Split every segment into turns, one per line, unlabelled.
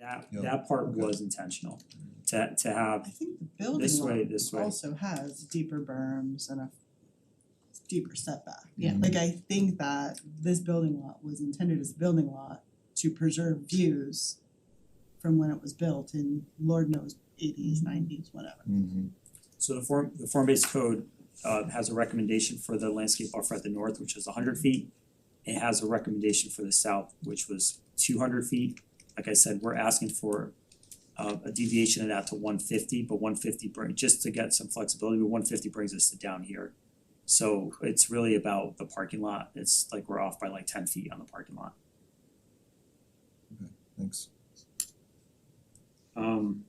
That
Yeah.
that part
Okay.
was intentional, to to have
I think the
this
building
way,
lot
this way,
also has deeper berms and a deeper setback.
Yeah.
Like I think that this building lot was intended as a building lot to preserve views from when it was built in Lord knows eighties, nineties, whatever.
Mm-hmm.
so the form, the form-based code uh has a recommendation for the landscape buffer at the north, which is hundred feet. It has a recommendation for the south, which was two hundred feet, like I said, we're asking for uh a deviation of that to one fifty, but one fifty bring, just to get some flexibility, but one fifty brings us to down here. So it's really about the parking lot, it's like we're off by like ten feet on the parking lot.
Thanks.
Um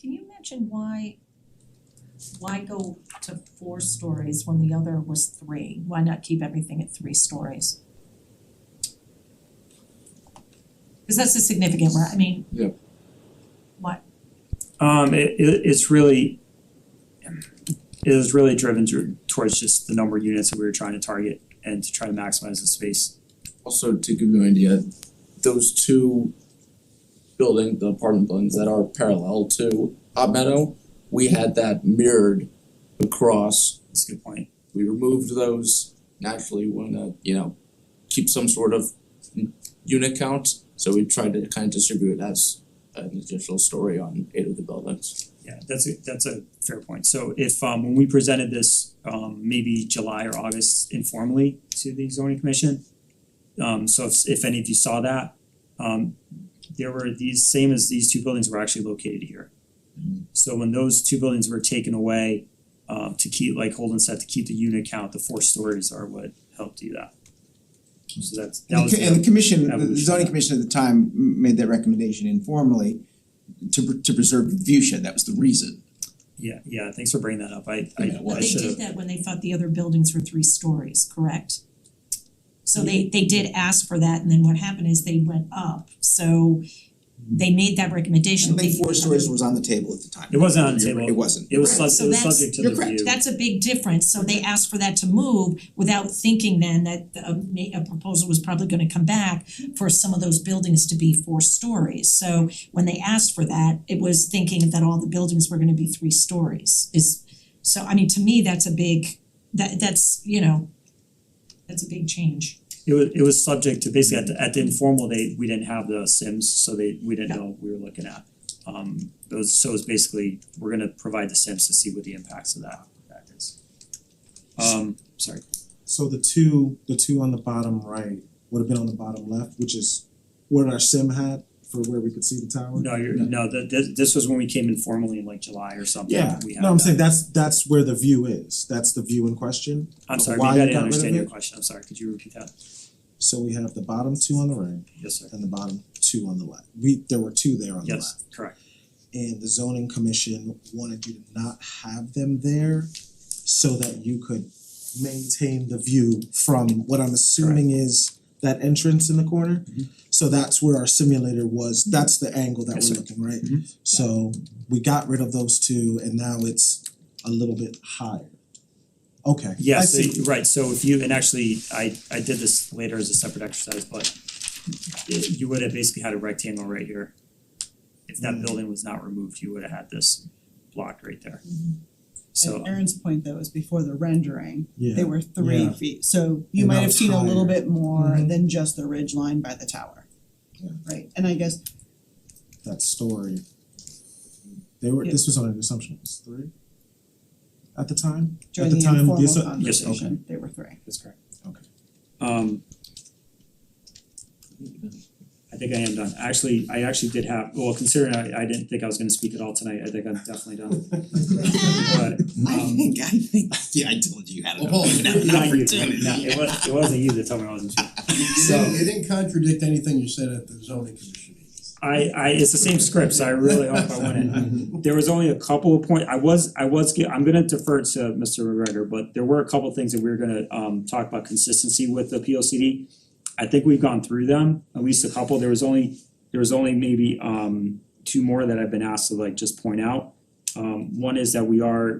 Can you mention why, why go to four stories when the other was three? Why not keep everything at three stories? Cause that's a significant one, I mean.
Yeah.
What,
Um, it, it, it's really, it was really driven to, towards just the number of units that we were trying to target and to try to maximize the space.
Also, to give you an idea, those two building, the apartment buildings that are parallel to Hot Meadow, we had that mirrored across.
That's a good point.
We removed those naturally wanna, you know, keep some sort of n- unit count. So we tried to kind of distribute it as an additional story on eight of the buildings.
Yeah, that's a, that's a fair point. So if, um, when we presented this, um, maybe July or August informally to the zoning commission. Um, so if, if any of you saw that, um, there were these, same as these two buildings were actually located here. So when those two buildings were taken away, um, to keep, like Holden said, to keep the unit count, the four stories are what helped do that. So that's, that
And
was.
the, co- and the commission, the
evolution.
zoning commission at the time m- made that recommendation informally to pr- to preserve the view shed, that was the reason.
Yeah, yeah, thanks for bringing that up. I, I,
Yeah, well,
but
I
they
should
did
have,
that when they thought the other buildings were three stories, correct? So they they did ask for that and then what happened is they went up, so they made that
I
recommendation,
don't
they.
think four stories was on the table at the time.
It wasn't on the
You're right,
table.
It wasn't.
it was sub-
Right, so
it was
that's-
subject to the
you're
view. Mm-hmm.
correct.
That's a big difference, so they asked for that to move without thinking then that a ma- a proposal was probably gonna come back for some of those buildings to be four stories, so when they asked for that, it was thinking that all the buildings were gonna be three stories is so I mean, to me, that's a big, that that's, you know, that's a big change.
It was, it was subject to basically at the, at the informal, they, we didn't have the Sims, so they, we didn't
Yeah.
know what we were looking at. Um, those, so it's basically, we're gonna provide the Sims to see what the impacts of that, that is. Um, sorry,
So the two, the two on the bottom right would have been on the bottom left, which is what our sim had for where we could see the tower.
no, you're, no, the, this, this was when we came informally in like July or something,
Yeah,
we had
no, I'm
that.
saying that's that's where the view is, that's the view in question.
I'm
of
sorry,
why
maybe I
you
didn't
got rid of
understand your
it.
question, I'm sorry, could you repeat that?
So we have the bottom two on the right
Yes, sir,
and the bottom two on the left. We, there were two there on the left.
yes, correct,
And the zoning commission wanted you to not have them there so that you could maintain the view from what I'm assuming is that entrance in the corner.
Mm-hmm.
So that's where our simulator was, that's the angle that
Yes,
we're
sir.
looking, right?
Mhm.
So we got rid of those two and now it's a little bit higher. Okay, I
yes,
see.
right, so if you, and actually, I, I did this later as a separate exercise, but it- you would have basically had a rectangle right here. If that
Mm.
building was not removed, you would have had this block right there.
Mm-hmm.
So,
And Aaron's point though is before the rendering,
Yeah.
they were three
yeah.
feet, so you
And
might
now
have
it's
seen a little
higher.
bit more
Mhm.
than just the ridge line by the tower.
Yeah.
Right, and I guess
that story. They were,
Yeah.
this was on an assumption, it was three? At the time?
during
At
the
the time,
informal
the assu-
Yes, okay.
conversation, they were three.
that's correct.
Okay.
Um. I think I am done. Actually, I actually did have, well, considering I, I didn't think I was gonna speak at all tonight, I think I'm definitely done. But,
I
um,
think, I think, yeah, I told you you had an
Well,
opportunity.
not you, not- it was, it wasn't you that told me I wasn't speaking.
You
So-
didn't, you didn't contradict anything you said at the zoning commission meeting.
I I it's the same script, so I really hope I win it. There was only a couple of points, I was I was, ge- I'm gonna defer to Mr. McGregor, but there were a couple of things that we were gonna um talk about consistency with the P O C D. I think we've gone through them, at least a couple, there was only, there was only maybe um two more that I've been asked to like just point out. Um one is that we are